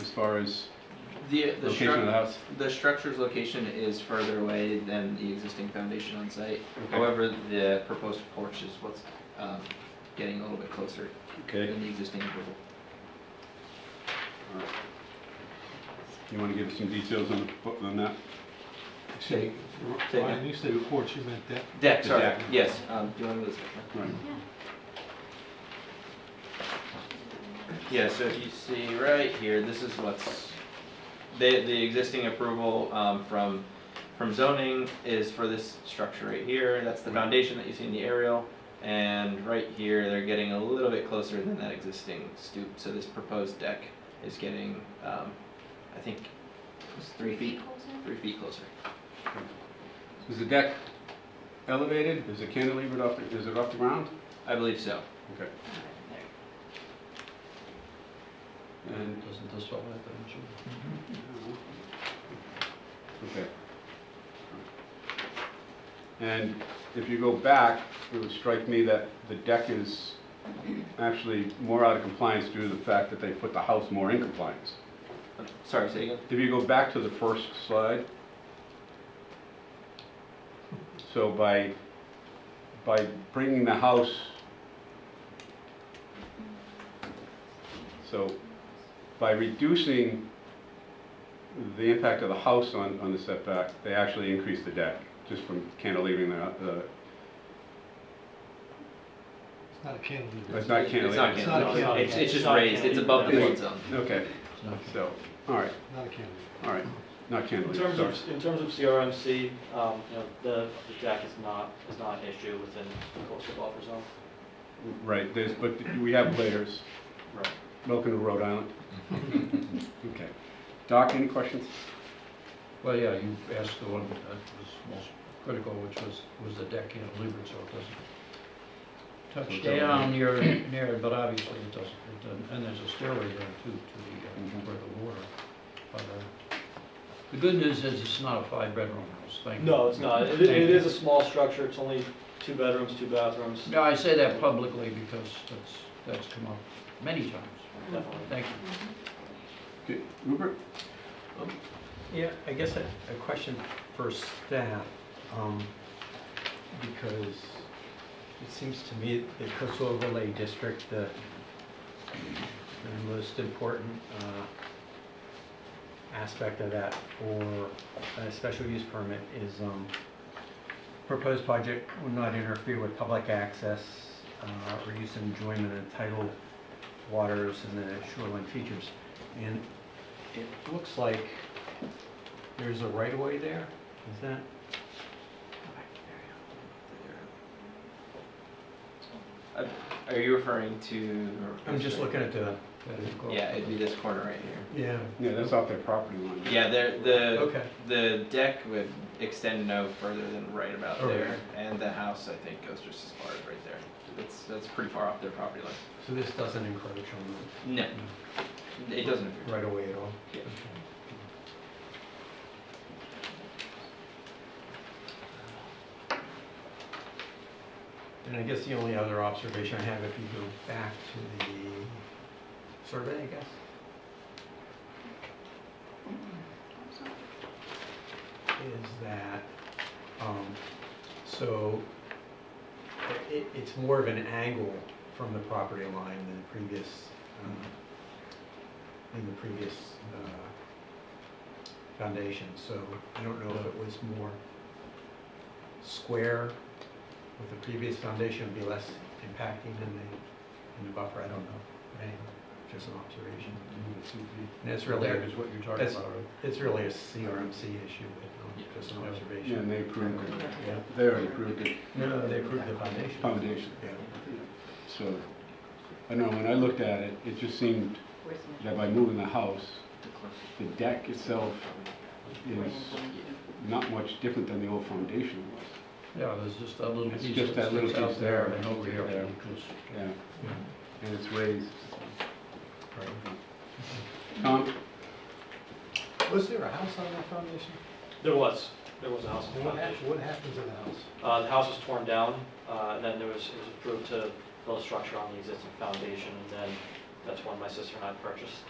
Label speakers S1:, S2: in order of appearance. S1: as far as
S2: The,
S1: location of
S2: the
S1: the
S2: structure,
S1: house?
S2: the structure's location is further away than the existing foundation on site.
S1: Okay.
S2: However, the proposed porch is what's, um, getting a little bit closer
S1: Okay.
S2: than the existing approval.
S1: You want to give us some details on, the- on that?
S3: Say,
S2: Say
S3: Ryan,
S2: again.
S3: you said before, she meant that.
S2: Deck,
S1: The
S2: sorry,
S1: deck.
S2: yes, um, do you want to move this? back?
S1: Right.
S2: Yeah, so if you see right here, this is what's, the, the existing approval, um, from, from zoning is for this structure right here, that's the foundation that you see in the aerial. And right here, they're getting a little bit closer than that existing stoop, so this proposed deck is getting, um, I think, it's three feet, three feet closer.
S1: Is the deck elevated? Is it cantilevered off, the- is it off the ground?
S2: I believe so.
S1: Okay. And,
S4: Doesn't this all have that issue?
S1: okay. And if you go back, it would strike me that the deck is actually more out of compliance due to the fact that they put the house more in compliance.
S2: Um, Sorry, say again?
S1: If you go back to the first slide, so by, by bringing the house, so by reducing the impact of the house on, on the setback, they actually increase the deck, just from uh, cantilevering the, the,
S3: It's not a cantilever.
S1: it's not
S2: It's not
S1: cantilevered.
S3: It's not
S2: cantilevered,
S3: cantilevered.
S2: it's, it's
S4: It's
S2: just
S4: not
S2: raised, it's above the
S1: cantilevered.
S2: flood zone.
S1: Okay,
S4: It's not-
S1: so, all right,
S3: Not a cantilever.
S1: all right, not
S5: In
S1: cantilevered,
S5: terms
S1: sorry.
S5: of, in terms of CRMC, um, you know, the, the deck is not, is not an issue within the coastal buffer zone.
S1: Right, there's, but we have layers.
S5: Right.
S1: Welcome to Rhode Island. Okay. Doc, any questions?
S4: Well, yeah, you asked the one that was most critical, which was, was the deck cantilevered, so it doesn't touch
S1: So it doesn't-
S4: down near, near, it, but obviously it doesn't, it doesn't, and there's a stairway there too, to the, uh,
S1: Mhm.
S4: where the water. But, uh, The good news is it's not a five-bedroom house, thank you.
S5: No, it's not. It, it is a small structure. It's only two bedrooms, two bathrooms,
S4: No, I say that publicly because that's, that's come up many times,
S5: definitely.
S4: thank you.
S1: Okay, Rupert?
S6: Yeah, I guess a, a question for staff, um, because it seems to me the coastal overlay district, the, the most important, uh, aspect of that for a special use permit is, um, proposed project will not interfere with public access, uh, or use and enjoyment of tidal waters and the shoreline features. And it looks like there's a right of way there, is that?
S2: Are you referring to?
S6: I'm just looking at the,
S2: Yeah, it'd be this corner right here.
S6: yeah,
S1: Yeah, that's off their property line.
S2: Yeah, there, the,
S6: okay,
S2: the deck would extend no further than right about
S6: All right.
S2: there, and the house, I think, goes just as far as right there. That's, that's pretty far off their property line.
S6: so this doesn't encroach on
S2: No, it doesn't. appear.
S6: the right of way at all?
S2: Yeah.
S6: Okay. And I guess the only other observation I have, if you go back to the survey, I guess, is that, um, so i- it, it's more of an angle from the property line than the previous, um, than the previous, uh, foundation, so I don't know if it was more square with the previous foundation would be less impacting than the, than the buffer, I don't know. Anyway, just an observation. And it's really,
S4: Deck is what you're talking
S6: That's-
S4: about, right?
S6: it's really a CRMC issue, but um, just an
S1: Yeah,
S6: observation.
S1: and they approved, it.
S6: Yeah.
S1: they already approved the
S6: No, they approved the foundation.
S1: foundation,
S6: Yeah.
S1: so, I know, when I looked at it, it just seemed that by moving the house, the deck itself is not much different than the old foundation was.
S4: Yeah, there's just that little
S1: It's
S4: piece
S1: just that
S4: that
S1: little
S4: sticks out
S1: piece
S4: there
S1: there,
S4: and over here,
S1: there.
S4: because,
S1: Yeah,
S4: you know,
S1: and it's raised.
S6: Right.
S1: Tom?
S3: Was there a house on that foundation?
S5: There was, there was a house on
S3: And
S5: the
S3: what
S5: foundation.
S3: happened, what happened to the house?
S5: Uh, the house was torn down, uh, and then there was, it was approved to build a structure on the existing foundation, and then that's when my sister and I purchased